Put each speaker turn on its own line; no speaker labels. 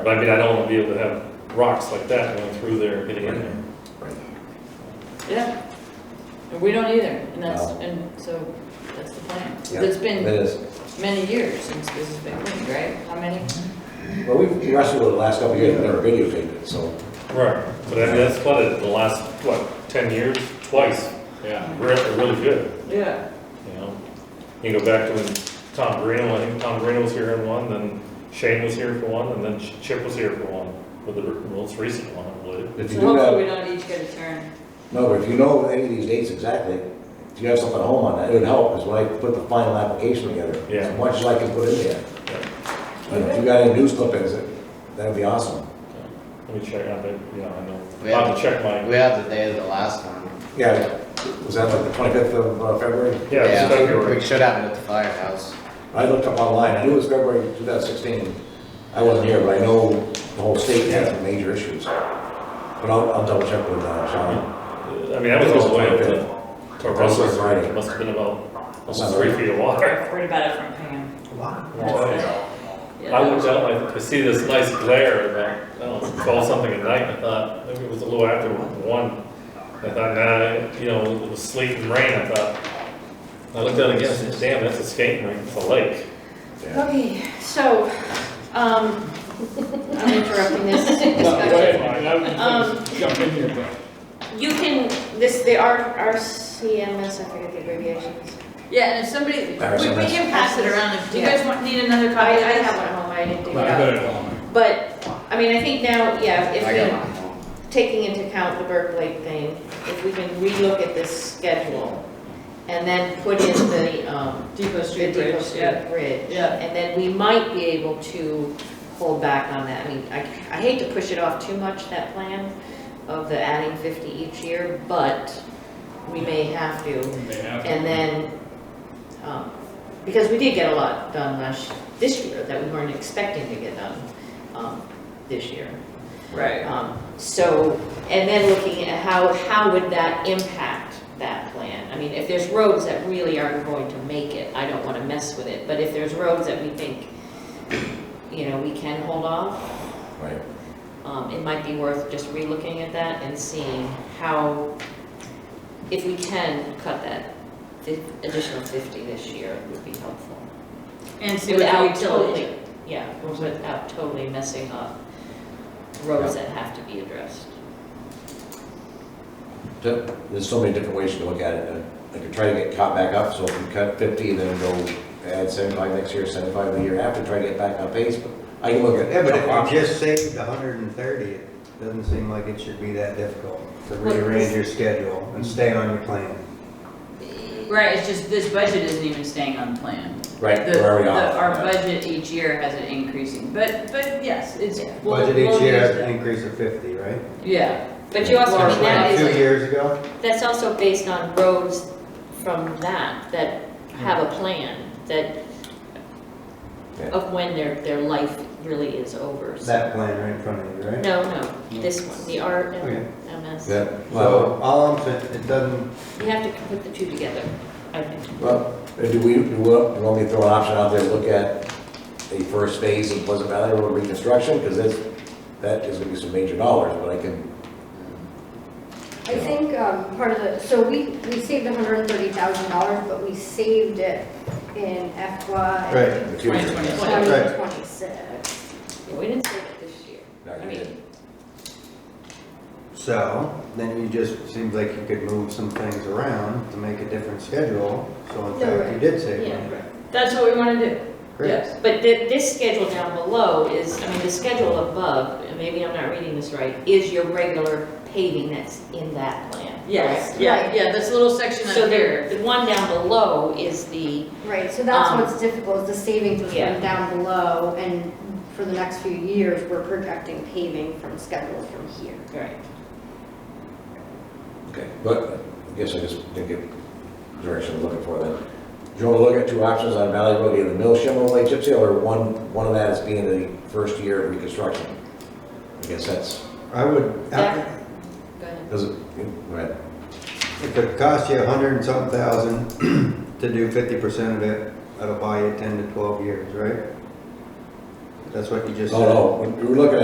But I mean, I don't want to be able to have rocks like that going through there and getting in there.
Yeah, and we don't either, and that's,
No.
and so, that's the plan.
Yeah.
It's
It
been
is.
many years since this has been cleaned, right? How many?
Well, we've wrestled with it the last couple of years, we never videotaped it, so.
Right. But I mean, that's flooded the last, what, ten years, twice.
Yeah.
Really, really good,
Yeah.
you know? You go back to when Tom Greeno, I think Tom Greeno was here in one, then Shane was here for one, and then Chip was here for one, with the most recent one, I believe.
If you
So
do
hopefully
have,
we don't each get a turn.
no, but if you know any of these dates exactly, if you have something at home on that, it would help, because when I put the final application together,
Yeah.
as much as I can put in there. And if you got any news clippings, that- that'd be awesome.
Let me check, I think, yeah, I know.
Yeah.
I'll have to check my,
We have the day of the last one.
Yeah, was that like the twenty-fifth of uh, February?
yeah, it's February.
We should have it at the firehouse.
I looked up online, I knew it was February two thousand sixteen. I wasn't here, but I know the whole state had some major issues. But I'll, I'll double check with uh, Sean.
I mean, that was all the way up to, to Russell's,
Right.
it must have been about almost three feet of water.
Heard about it from Pam. Yeah.
I looked out, I could see this nice glare, and I, I don't know, twelve something at night, and I thought, maybe it was a little after one. I thought, nah, you know, it was sleet and rain, I thought. I looked out again, I said, damn, that's a skating rink, it's a lake.
Yeah.
Okay, so, um, I'm interrupting this discussion. Um,
Jump in here, but
You can, this, the R, RCMS, I forget the abbreviations.
Yeah, and if somebody, we, we can pass it around if, do you guys want, need another
I,
copy?
I have one at home, I didn't
I
dig it
got
up.
it on.
But, I mean, I think now, yeah,
I got
if
mine home.
we, taking into account the Burke Lake thing, if we can relook at this schedule and then put in the, um,
Depot
the
Street
Depot
Bridge, yeah.
Street Bridge.
Yeah.
And then we might be able to hold back on that. I mean, I, I hate to push it off too much, that plan of the adding fifty each year, but we may have to.
They have to-
And then, um, because we did get a lot done last, this year that we weren't expecting to get done, um, this year.
Right.
Um, so, and then looking at how, how would that impact that plan? I mean, if there's roads that really aren't going to make it, I don't wanna mess with it, but if there's roads that we think, you know, we can hold off,
Right.
um, it might be worth just relooking at that and seeing how, if we can cut that fif- additional fifty this year, it would be helpful.
And see what the
Without
utility.
totally, yeah, without totally messing up roads that have to be addressed.
There- There's so many different ways you can look at it. I could try to get caught back up, so if you cut fifty, then go add seventy-five next year, seventy-five the year after, try to get back on pace, but I can look at.
Yeah, but if you just saved hundred and thirty, it doesn't seem like it should be that difficult to rearrange your schedule and stay on your plan.
Right, it's just this budget isn't even staying on plan.
Right,
The,
we're already
the-
off.
our
Yeah.
budget each year has it increasing, but, but yes, it's. we'll-
Budget each
we'll
year
use
has an
it.
increase of fifty, right?
Yeah,
But you also, I mean, that
Two
is,
years ago?
that's also based on roads from that, that have a plan, that,
Yeah.
of when their, their life really is over. so-
That plan right in front of you, right?
No, no, this one, the R
Okay.
M MS.
Yeah, well,
So all I'm saying, it doesn't,
You have to put the two together, I think.
well, do we, do we want me to throw an option out there, look at the first phase of Pleasant Valley Road reconstruction? Because that's, that is gonna be some major dollars, but I can,
I think um, part of the, so we, we saved $130,000, but we saved it in FY
right,
the future.
2020.
Right.
2026.
Yeah, We didn't save it this year.
No,
I
you
mean,
didn't.
so then you just, seems like you could move some things around to make a different schedule. So in
No,
fact, you
right.
did save
Yeah.
money.
that's what we wanna do,
Great.
yes.
But thi- this schedule down below is, I mean, the schedule above, and maybe I'm not reading this right, is your regular paving that's in that plan.
Yes,
correct?
yeah, yeah, this little section
So
up
there,
here.
the one down below is the,
Right, so that's
Um,
what's difficult, is the savings was
yeah.
from down below, and for the next few years, we're projecting paving from schedule from here.
right,
Okay, but I guess I just didn't get the direction I'm looking for then. Do you want to look at two options on Valley Road, either mill shim overlay chip seal, or one, one of that is being the first year of reconstruction? I guess that's,
I would,
Yeah. go ahead.
does it, go ahead.
If it costs you a hundred and something thousand to do fifty percent of it, that'll buy you ten to twelve years, right? That's what you just said.
Oh, no, we- we were looking at